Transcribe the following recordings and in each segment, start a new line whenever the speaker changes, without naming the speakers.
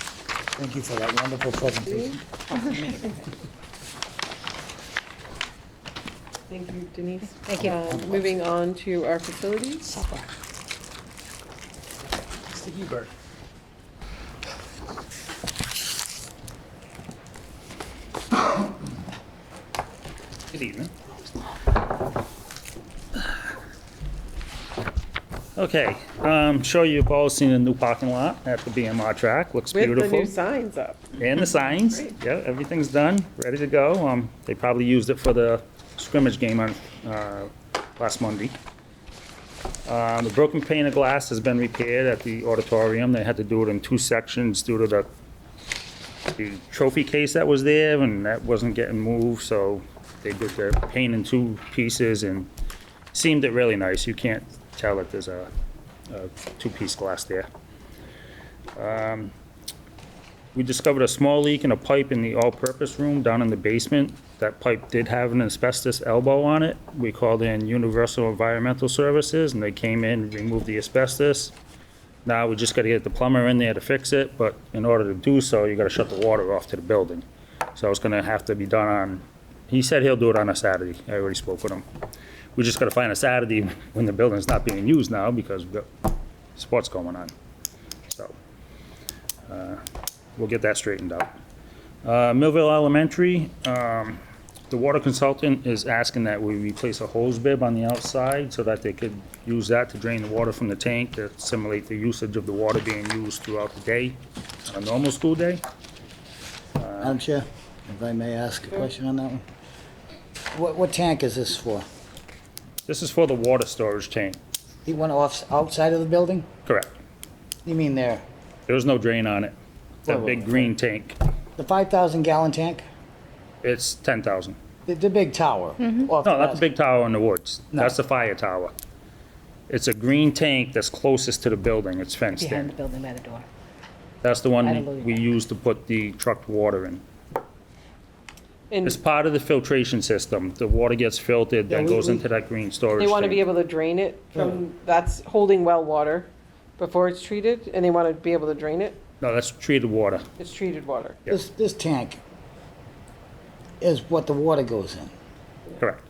Thank you for that wonderful presentation.
Thank you, Denise.
Thank you.
Uh, Moving on to our facilities.
Supper. It's the Hebert. Good evening.
Okay, um, sure you've all seen the new parking lot at the BMR track, looks
With the
beautiful.
new signs up.
And the signs,
Great.
yeah, everything's done, ready to go. Um, they probably used it for the scrimmage game on, uh, last Monday. Um, the broken pane of glass has been repaired at the auditorium. They had to do it in two sections due to the, the trophy case that was there and that wasn't getting moved, so they did the pane in two pieces and seamed it really nice. You can't tell that there's a, a two-piece glass there. We discovered a small leak in a pipe in the all-purpose room down in the basement. That pipe did have an asbestos elbow on it. We called in Universal Environmental Services, and they came in, removed the asbestos. Now, we just gotta get the plumber in there to fix it, but in order to do so, you gotta shut the water off to the building. So it's gonna have to be done on, he said he'll do it on a Saturday. I already spoke with him. We just gotta find a Saturday when the building's not being used now, because we've got sports going on, so we'll get that straightened out. Uh, Millville Elementary, um, the water consultant is asking that we replace a hose bib on the outside so that they could use that to drain the water from the tank to simulate the usage of the water being used throughout the day, on a normal school day.
Madam Chair, if I may ask a question on that one? What, what tank is this for?
This is for the water storage tank,
He went off, outside of the building?
correct.
You mean there,
There was no drain on it. That big green tank,
the 5,000 gallon tank?
it's 10,000.
The, the big tower? No,
No, not the big tower in the woods.
No.
That's the fire tower. It's a green tank that's closest to the building. It's fenced in.
Behind the building by the door.
That's the one
I don't
that
believe
we
that.
use to put the trucked water in.
And
It's part of the filtration system. The water gets filtered, then
Yeah, we-
goes
we-
into that green storage
they want to be
tank.
able to drain it
Oh.
from, that's holding well water before it's treated, and they want to be able to drain it.
No, that's treated water.
It's treated water.
This, this tank is what the water goes in,
Correct.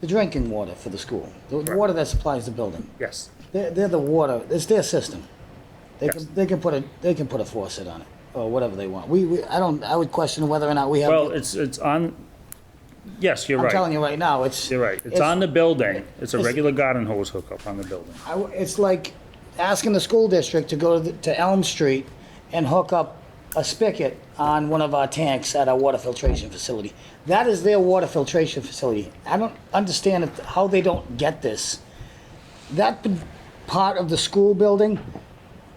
the drinking water for the school, the water that supplies the building.
Yes.
They're, they're the water, it's their system. They
Yes.
can, they can put a, they can put a faucet on it, or whatever they want. We, we, I don't, I would question whether or not we have.
Well, it's, it's on, yes, you're
I'm telling
right.
you right now, it's.
You're right. It's on the building. It's a regular garden hose hookup on the building.
I w it's like asking the school district to go to, the- to Elm Street and hook up a spigot on one of our tanks at our water filtration facility. That is their water filtration facility. I don't understand it- how they don't get this. That p- part of the school building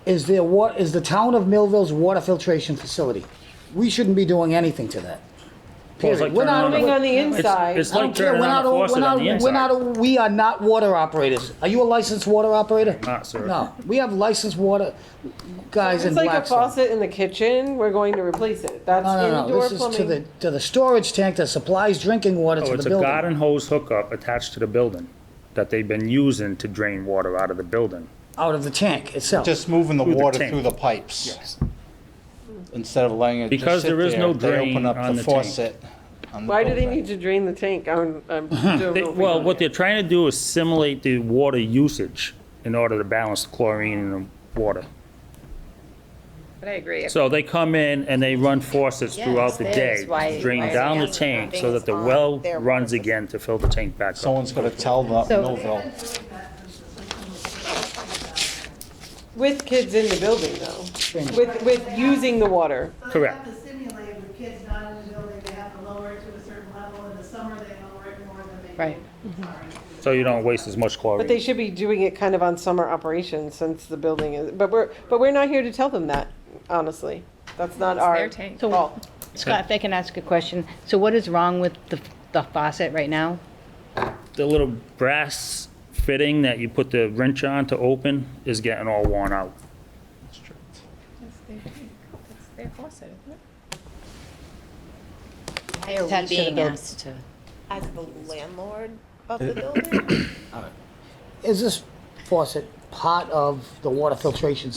is their wa, is the town of Millville's water filtration facility. We shouldn't be doing anything to that.
Well, it's like
Period. We're not-
turning
Coming on
on a-
the
it's-
inside,
It's
I
like
don't care.
turning
We're
on
not
a
all- we're
faucet on
not-
the
We're
inside.
not, all- we are not water operators. Are you a licensed water operator?
not, sir.
No, we have licensed water guys in
it's like a
Blackstone.
faucet in the kitchen, we're going to replace it. That's
No, no, no,
indoor
this is to the,
plumbing.
to the storage tank that supplies drinking water
Oh,
to
it's
the
a
building.
garden hose hookup attached to the building that they've been using to drain water out of the building.
Out of the tank itself.
Just moving the
Through the
water
tank.
through the pipes. Instead of letting it
Because
just sit
there is no
there, they
drain
open up
on the
the
tank.
faucet. on the
Why do they
building.
need to drain the tank? I'm, I'm, don't know
They-
if we
Well,
know
what
yet.
they're trying to do is simulate the water usage in order to balance the chlorine in the water.
But I agree.
So they come in and they run faucets throughout the
Yes, that
day,
is why-
drain
why
down the
it's
tank so that the
on
well
their
runs
water.
again to fill the tank back up.
Someone's gonna tell the
So-
Millville.
With kids in the building though, with, with using the water.
So they
Correct.
have to simulate with kids not in the building, they have to lower it to a certain level, in the summer they lower it more than they.
Right.
So you don't waste as much
But they
chlorine.
should be doing it kind of on summer operations since the building is, but we're, but we're not here to tell them that, honestly. That's not our
their tank.
So-
fault.
Scott, if I can ask a question, so what is wrong with the the faucet right now?
The little brass fitting that you put the wrench on to open is getting all worn out.
That's their- that's their faucet, isn't it?
Why are we
Attached to the
being
building.
asked to, as the landlord of the building?
Is this faucet part of the water filtration